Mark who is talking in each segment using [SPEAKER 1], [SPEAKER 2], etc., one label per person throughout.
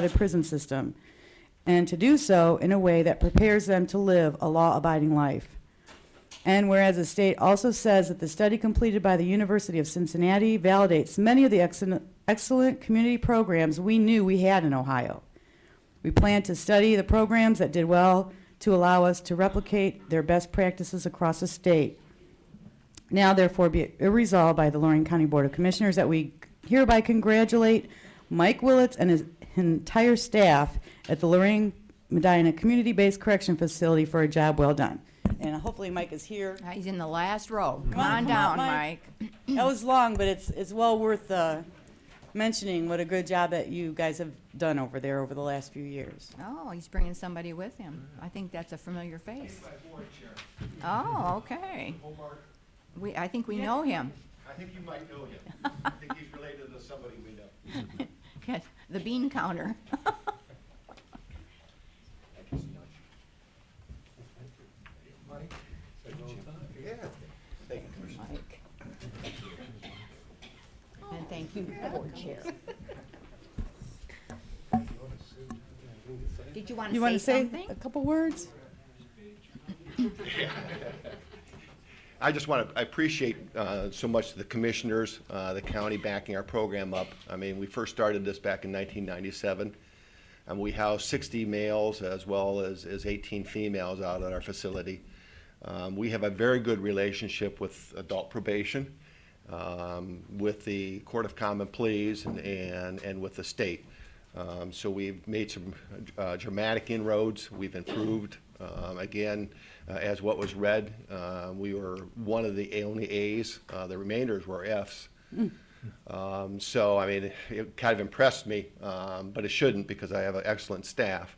[SPEAKER 1] the prison system, and to do so in a way that prepares them to live a law-abiding life. And whereas the state also says that the study completed by the University of Cincinnati validates many of the excellent, excellent community programs we knew we had in Ohio. We plan to study the programs that did well to allow us to replicate their best practices across the state. Now therefore be it resolved by the Lorraine County Board of Commissioners that we hereby congratulate Mike Willets and his entire staff at the Lorraine Medina Community-Based Correction Facility for a job well done. And hopefully Mike is here.
[SPEAKER 2] Uh, He's in the last row. Come
[SPEAKER 1] on,
[SPEAKER 2] on
[SPEAKER 1] come on,
[SPEAKER 2] down,
[SPEAKER 1] Mike.
[SPEAKER 2] Mike.
[SPEAKER 1] That was long, but it's, it's well worth uh, mentioning what a good job that you guys have done over there over the last few years.
[SPEAKER 2] Oh, he's bringing somebody with him. I think that's a familiar face. Oh, okay.
[SPEAKER 3] Omar,
[SPEAKER 2] We, I think we know him.
[SPEAKER 3] I think you might know him. I think he's related to somebody we know.
[SPEAKER 2] Yes, The bean counter.
[SPEAKER 3] Mike? Yeah. Thank you, Commissioner.
[SPEAKER 2] Mike. And thank you, board chair. Did you want
[SPEAKER 1] You want
[SPEAKER 2] to
[SPEAKER 1] to
[SPEAKER 2] say
[SPEAKER 1] say
[SPEAKER 2] something?
[SPEAKER 1] a couple words?
[SPEAKER 3] I just want to, I appreciate uh, so much the commissioners, uh, the county backing our program up. I mean, we first started this back in 1997, and we housed 60 males as well as as 18 females out at our facility. Um, We have a very good relationship with adult probation, um, with the Court of Common Pleas, and and and with the state. Um, So we've made some uh, dramatic inroads. We've improved. Um, Again, uh, as what was read, uh, we were one of the only As. Uh, The remainders were Fs. Um, So, I mean, it kind of impressed me, um, but it shouldn't because I have an excellent staff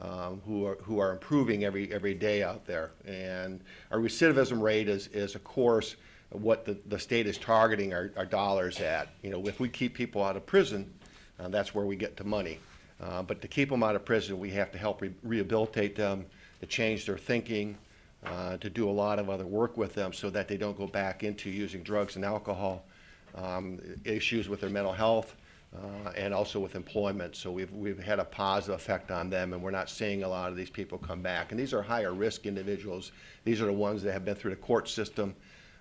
[SPEAKER 3] um, who are, who are improving every, every day out there. And our recidivism rate is, is of course, what the, the state is targeting our, our dollars at. You know, if we keep people out of prison, uh, that's where we get the money. Uh, But to keep them out of prison, we have to help re- rehabilitate them, to change their thinking, uh, to do a lot of other work with them so that they don't go back into using drugs and alcohol, um, issues with their mental health, uh, and also with employment. So we've, we've had a positive effect on them, and we're not seeing a lot of these people come back. And these are higher-risk individuals. These are the ones that have been through the court system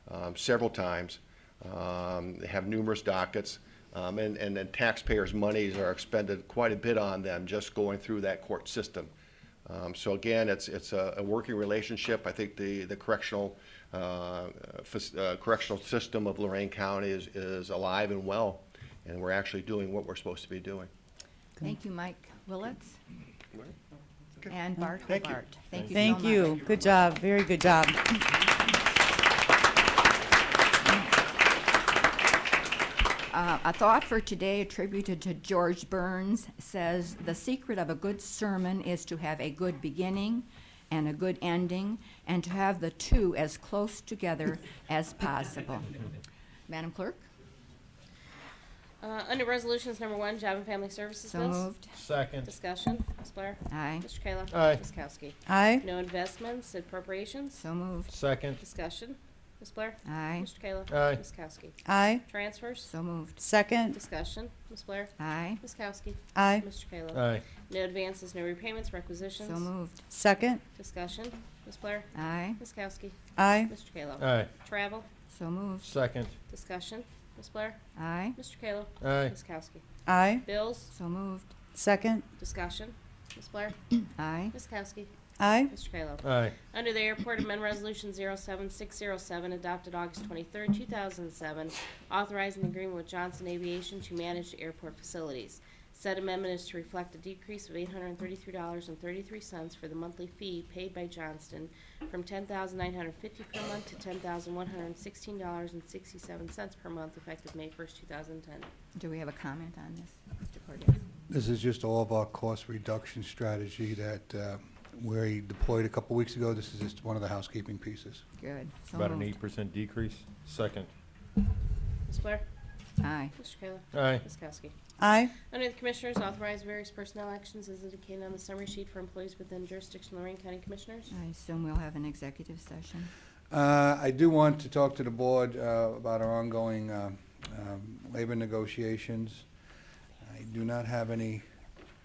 [SPEAKER 3] um, several times, um, they have numerous dockets, um, and, and then taxpayers' monies are expended quite a bit on them just going through that court system. Um, So again, it's, it's a, a working relationship. I think the, the correctional, uh, uh, fac- uh, correctional system of Lorraine County is, is alive and well, and we're actually doing what we're supposed to be doing.
[SPEAKER 2] Thank you, Mike Willets. And Bart
[SPEAKER 3] Thank you.
[SPEAKER 2] Hobart. Thank you so much.
[SPEAKER 1] Thank you. Good job. Very good job.
[SPEAKER 2] Uh, a thought for today attributed to George Burns says The secret of a good sermon is to have a good beginning and a good ending, and to have the two as close together as possible. Madam Clerk,
[SPEAKER 4] Uh, Under Resolutions Number One, Job and Family Services
[SPEAKER 2] so
[SPEAKER 4] Bills.
[SPEAKER 2] moved.
[SPEAKER 5] Second.
[SPEAKER 4] Discussion, Ms. Blair.
[SPEAKER 2] Aye.
[SPEAKER 4] Mr. Kayla.
[SPEAKER 5] Aye.
[SPEAKER 4] Ms. Kowski.
[SPEAKER 1] Aye.
[SPEAKER 4] No investments, appropriations.
[SPEAKER 2] So moved.
[SPEAKER 5] Second.
[SPEAKER 4] Discussion, Ms. Blair.
[SPEAKER 2] Aye.
[SPEAKER 4] Mr. Kayla.
[SPEAKER 5] Aye.
[SPEAKER 4] Ms. Kowski.
[SPEAKER 1] Aye.
[SPEAKER 4] Transfers.
[SPEAKER 2] So moved.
[SPEAKER 1] Second.
[SPEAKER 4] Discussion, Ms. Blair.
[SPEAKER 2] Aye.
[SPEAKER 4] Ms. Kowski.
[SPEAKER 1] Aye.
[SPEAKER 4] Mr. Kayla.
[SPEAKER 5] Aye.
[SPEAKER 4] No advances, no repayments, requisitions.
[SPEAKER 2] So moved.
[SPEAKER 1] Second.
[SPEAKER 4] Discussion, Ms. Blair.
[SPEAKER 2] Aye.
[SPEAKER 4] Ms. Kowski.
[SPEAKER 1] Aye.
[SPEAKER 4] Mr. Kayla.
[SPEAKER 5] Aye.
[SPEAKER 4] Travel.
[SPEAKER 2] So moved.
[SPEAKER 5] Second.
[SPEAKER 4] Discussion, Ms. Blair.
[SPEAKER 2] Aye.
[SPEAKER 4] Mr. Kayla.
[SPEAKER 5] Aye.
[SPEAKER 4] Ms. Kowski.
[SPEAKER 1] Aye.
[SPEAKER 4] Bills.
[SPEAKER 2] So moved.
[SPEAKER 1] Second.
[SPEAKER 4] Discussion, Ms. Blair.
[SPEAKER 2] Aye.
[SPEAKER 4] Ms. Kowski.
[SPEAKER 1] Aye.
[SPEAKER 4] Mr. Kayla.
[SPEAKER 5] Aye.
[SPEAKER 4] Under the Airport Amendment Resolution 07607, adopted August 23, 2007, authorizing agreement with Johnson Aviation to manage the airport facilities. Said amendment is to reflect a decrease of $833.33 for the monthly fee paid by Johnston from $10,950 per month to $10,116.67 per month effective May 1st, 2010.
[SPEAKER 2] Do we have a comment on this, Mr. Cordez?
[SPEAKER 6] This is just all of our cost reduction strategy that uh, we deployed a couple weeks ago. This is just one of the housekeeping pieces.
[SPEAKER 2] Good. So
[SPEAKER 5] About an
[SPEAKER 2] moved.
[SPEAKER 5] eight percent decrease. Second.
[SPEAKER 4] Ms. Blair?
[SPEAKER 2] Aye.
[SPEAKER 4] Mr. Kayla?
[SPEAKER 5] Aye.
[SPEAKER 4] Ms. Kowski?
[SPEAKER 1] Aye.
[SPEAKER 4] Under the Commissioners, authorize various personnel actions as indicated on the summary sheet for employees within jurisdiction of Lorraine County Commissioners.
[SPEAKER 2] I assume we'll have an executive session.
[SPEAKER 6] Uh, I do want to talk to the board uh, about uh, our ongoing um, um, labor negotiations. I do not have any